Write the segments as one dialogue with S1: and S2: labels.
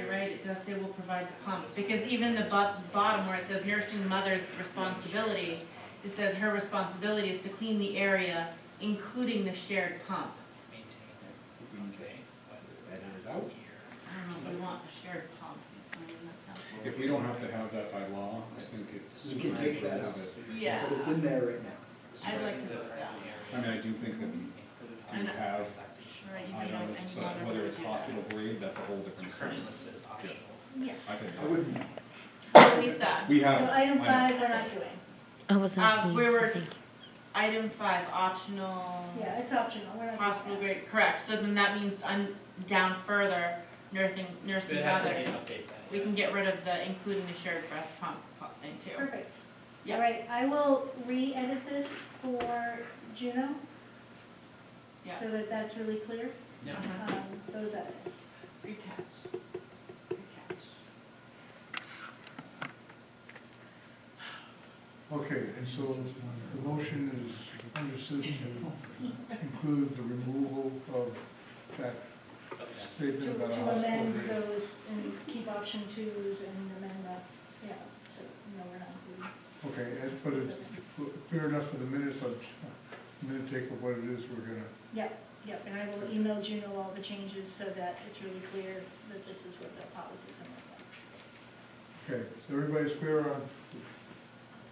S1: address, they will provide the pump. Because even the bo- bottom where it says nursing mother's responsibility, it says her responsibility is to clean the area, including the shared pump.
S2: maintain it. Okay. but
S3: Edit it out.
S1: I don't know, we want a shared pump. I mean, that sounds-
S4: If we don't have to have that by law, I think it.
S3: You can take that out.
S1: Yeah,
S3: But it's in there right now.
S1: I'd like to vote that.
S4: I mean, I do think that
S1: I
S4: you
S1: know.
S4: have
S1: Right, you may not-
S4: items,
S1: I just
S4: but
S1: wanna
S4: whether it's
S1: do that.
S4: hospital grade, that's a whole different story.
S2: Currently listed as optional.
S1: Yeah.
S4: I think,
S3: I wouldn't,
S1: So Lisa,
S4: we
S5: So
S4: have.
S5: item
S4: I know.
S5: five, we're not doing.
S6: I Oh, wasn't
S1: um,
S6: listening.
S1: we were,
S6: Thank you.
S1: item five, optional.
S5: Yeah, it's optional, we're not. doing
S1: Hospital
S5: that.
S1: grade, correct, so then that means un, down further, nursing, nursing
S2: They have to
S1: mothers.
S2: update that.
S1: We can get rid of the including the shared breast pump pump thing too.
S5: Perfect.
S1: Yeah.
S5: All right, I will re-edit this for Juno.
S1: Yeah.
S5: So that that's really clear,
S2: Yeah.
S1: Uh-huh.
S5: um, those edits.
S1: Good catch. Good catch.
S7: Okay, and so the motion is understood to include the removal of that
S5: To
S7: statement about a
S5: to
S7: hospital
S5: amend
S7: grade.
S5: those and keep option twos and amend that, yeah, so, no, we're not doing.
S7: Okay, and but it's fair enough for the minutes, I'm, I'm gonna take what it is we're gonna,
S5: Yep, yep, and I will email Juno all the changes so that it's really clear that this is what the policy's gonna look like.
S7: okay, so everybody's clear on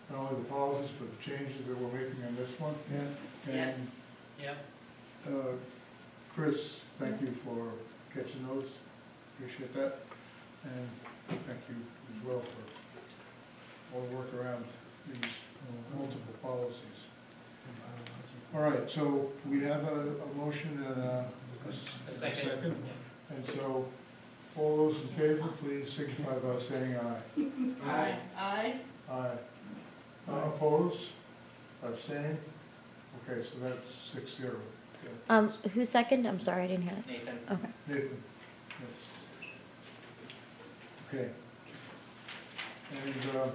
S7: not only the policies, but the changes that we're making on this one? Yeah.
S1: Yes.
S7: And,
S2: Yeah,
S7: uh, Chris, thank you for catching those, appreciate that, and thank you as well for all the work around these uh, multiple policies. All right, so we have a, a motion and a, a s-
S2: a
S7: and a
S2: second.
S7: second. And so, all those in favor, please signify by saying aye.
S3: I,
S1: Aye.
S7: Aye. Opposed? Abstained? Okay, so that's six zero. Okay.
S6: Um, who second? I'm sorry, I didn't hear that.
S2: Nathan.
S6: Okay.
S7: Nathan, yes. Okay. And, uh,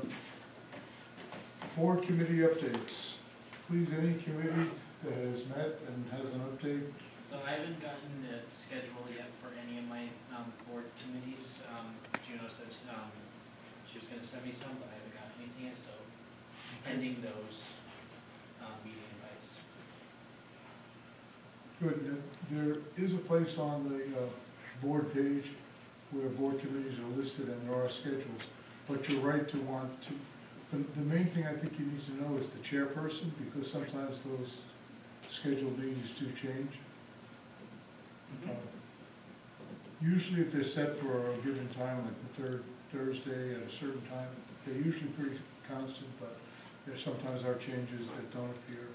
S7: board committee updates. Please, any committee that has met and has an update,
S2: So I haven't gotten the schedule yet for any of my um, board committees. Um, Juno said um, she was gonna send me some, but I haven't gotten anything yet, so pending those um, meeting invites.
S7: Good, there is a place on the uh, board page where board committees are listed and there are schedules, but you're right to want to, the, the main thing I think you need to know is the chairperson, because sometimes those scheduled meetings do change. Uh, Usually if they're set for a given time, like the third Thursday at a certain time, they're usually pretty constant, but there sometimes are changes that don't appear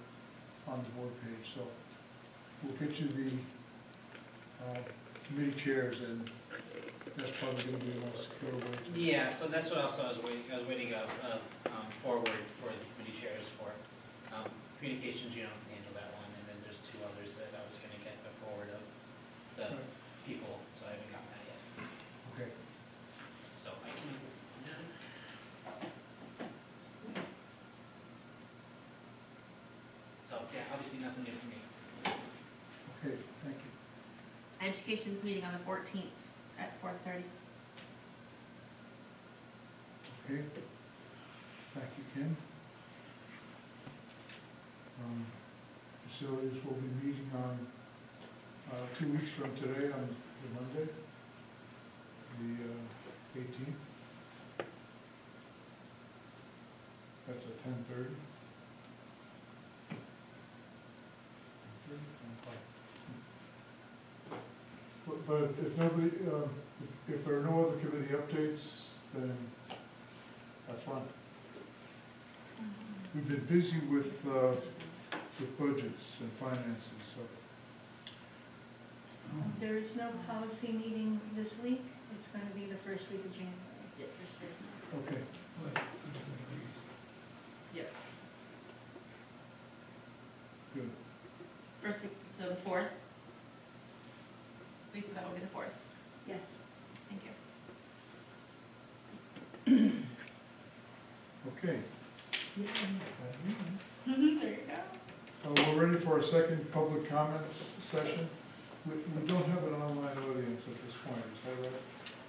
S7: on the board page, so we'll get you the, uh, committee chairs, and that's probably gonna be the most secure way to.
S2: Yeah, so that's what also I was waiting, I was waiting uh, uh, um, forward for the committee chairs for um, communications, you don't handle that one, and then there's two others that I was gonna get the forward of the
S7: Right.
S2: people, so I haven't gotten that yet.
S7: Okay,
S2: So I can, so, yeah, obviously nothing new for me.
S7: okay, thank you.
S1: Education's meeting on the fourteenth at four thirty.
S7: Okay. Thank you, Kim. Um, Facilities will be meeting on, uh, two weeks from today, on the Monday, the uh, eighteenth. That's at ten thirty. But, but if nobody, um, if- if there are no other committee updates, then that's fine. We've been busy with, uh, with budgets and finances, so. Oh,
S5: There is no policy meeting this week, it's gonna be the first week of January.
S7: Okay.
S1: Yep.
S7: Good.
S1: First week, so the fourth. Lisa, that will be the fourth.
S5: Yes.
S1: Thank you.
S7: Okay,
S1: There you go.
S7: Uh, we're ready for a second public comments session. We, we don't have an online audience at this point, is that right?